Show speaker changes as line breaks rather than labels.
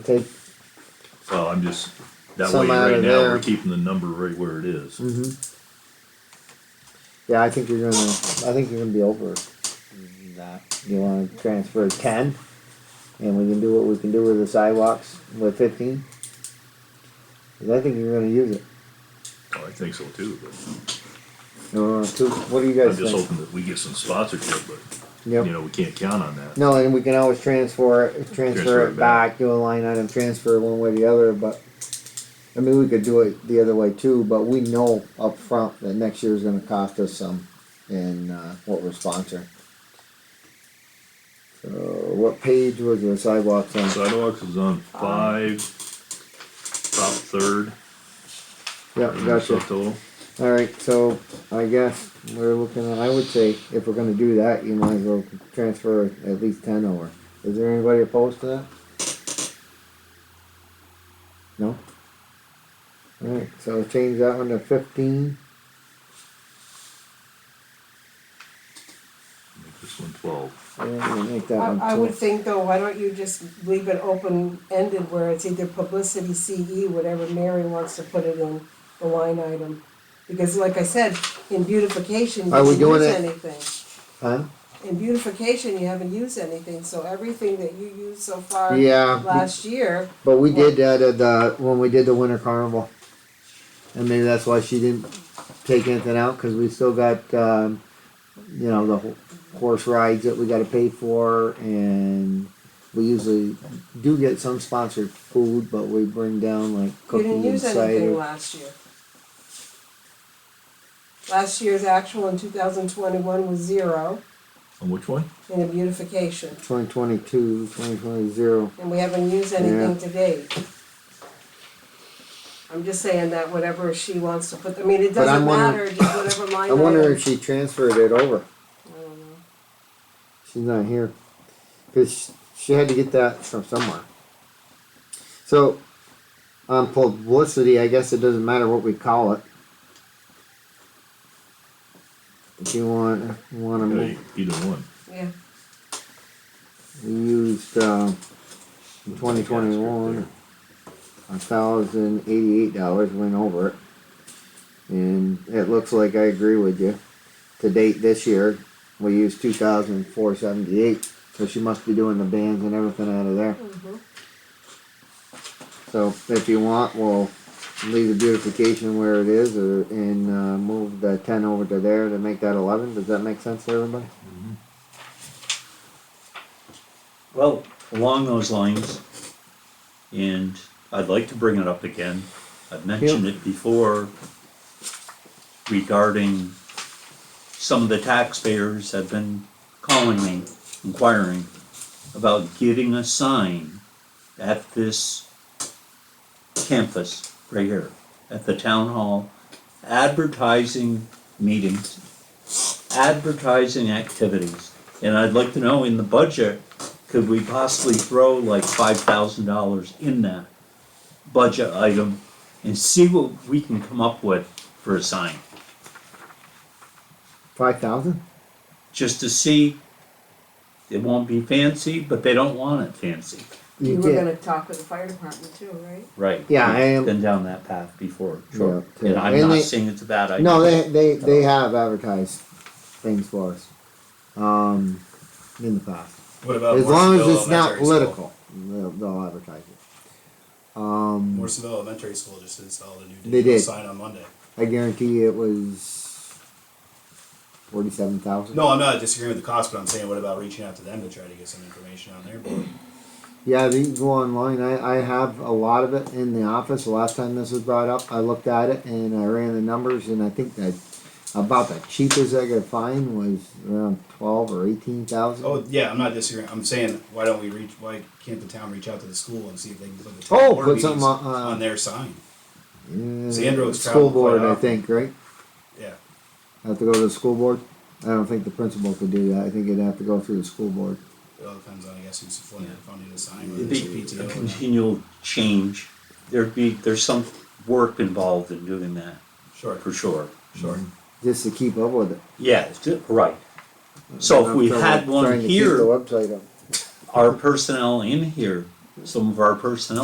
take,
So I'm just, that way
Some out
right
of
now,
there.
we're keeping the number right where it is.
yeah, I think you're gonna, I think you're gonna be over that. You wanna transfer ten? And we can do what we can do with the sidewalks with fifteen? 'Cause I think you're gonna use it,
Oh, I think so too, but
or two, what do you
I'm
guys
just
think?
hoping that we get some sponsorship, but,
Yep.
you know, we can't count on that.
No, and we can always transfer, it- transfer
Transfer
it
it back.
back, do a line item transfer one way or the other, but. I mean, we could do it the other way too, but we know up front that next year's gonna cost us some in, uh, what we're sponsoring. So, what page was the sidewalks on?
Sidewalks is on five, top third.
Yeah,
and so
gotcha.
Total.
Alright, so I guess we're looking at, I would say, if we're gonna do that, you might as well transfer at least ten over. Is there anybody opposed to that? No? Alright, so change that one to fifteen,
Make this one twelve.
yeah, we'll make that one
I, I would
two.
think though, why don't you just leave it open-ended where it's either publicity CE, whatever Mary wants to put it in, the line item. Because like I said, in beautification, you
Are we
didn't
doing
use
it-
anything.
Huh?
In beautification, you haven't used anything, so everything that you used so far
Yeah.
last year,
But we did that at the, when we did the winter carnival. And maybe that's why she didn't take anything out, cause we still got, um, you know, the ho- horse rides that we gotta pay for and we usually do get some sponsored food, but we bring down like
you didn't
cookies and
use anything
cider.
last year. Last year's actual in two thousand twenty-one was zero
On which one?
in the beautification,
Twenty twenty-two, twenty twenty zero,
and we haven't used anything to date. I'm just saying that whatever she wants to put, I mean, it
But I'm
doesn't
wondering-
matter, just whatever line
I wonder
item-
if she transferred it over,
I don't know.
she's not here. Cause she had to get that from somewhere. So, on publicity, I guess it doesn't matter what we call it. If you want, wanna
Okay,
move,
Either one.
Yeah,
we used, uh, twenty twenty-one, a thousand eighty-eight dollars, went over it. And it looks like I agree with you. To date this year, we used two thousand four seventy-eight, so she must be doing the bands and everything out of there.
mhm.
So if you want, we'll leave the beautification where it is or, and, uh, move the ten over to there to make that eleven. Does that make sense to everybody?
Well, along those lines, and I'd like to bring it up again, I've mentioned it before regarding some of the taxpayers have been calling me, inquiring about getting a sign at this campus right here, at the town hall, advertising meetings, advertising activities. And I'd like to know in the budget, could we possibly throw like five thousand dollars in that budget item and see what we can come up with for a sign?
Five thousand?
Just to see, it won't be fancy, but they don't want it fancy.
You were gonna talk with the fire department too, right?
Right.
Yeah, I am-
Been down that path before, sure.
Yeah,
And I'm
and
not
they-
saying it's a bad idea.
No, they, they, they have advertised things for us, um, in the past.
What about
As
Morrisonville
long as it's not
Elementary School?
political, they'll, they'll advertise it. Um,
Morrisonville Elementary School just installed a new
They
digital
did.
sign on Monday.
I guarantee it was forty-seven thousand.
No, I'm not disagreeing with the cost, but I'm saying what about reaching out to them to try to get some information on their board?
Yeah, they can go online. I, I have a lot of it in the office. The last time this was brought up, I looked at it and I ran the numbers and I think that about the cheapest I could find was around twelve or eighteen thousand.
Oh yeah, I'm not disagreeing. I'm saying why don't we reach? Why can't the town reach out to the school and see if they can put the town
Oh,
board
put something
meetings
on-
on,
uh,
their sign?
Yeah,
Sandro's
School
traveled quite
board, I
often.
think, right?
Yeah,
Have to go to the school board? I don't think the principal could do that. I think it'd have to go through the school board.
it all depends on I guess who's funding,
Yeah.
funding the sign. Whether
It'd
it's
be
PTO.
a
or not.
continual change. There'd be, there's some work involved in doing that,
Sure,
for sure.
sure.
Just to keep up with it.
Yeah, it's- right. So if we
Trying to-
had one
trying to keep
here.
The website up.
our personnel in here some of our personnel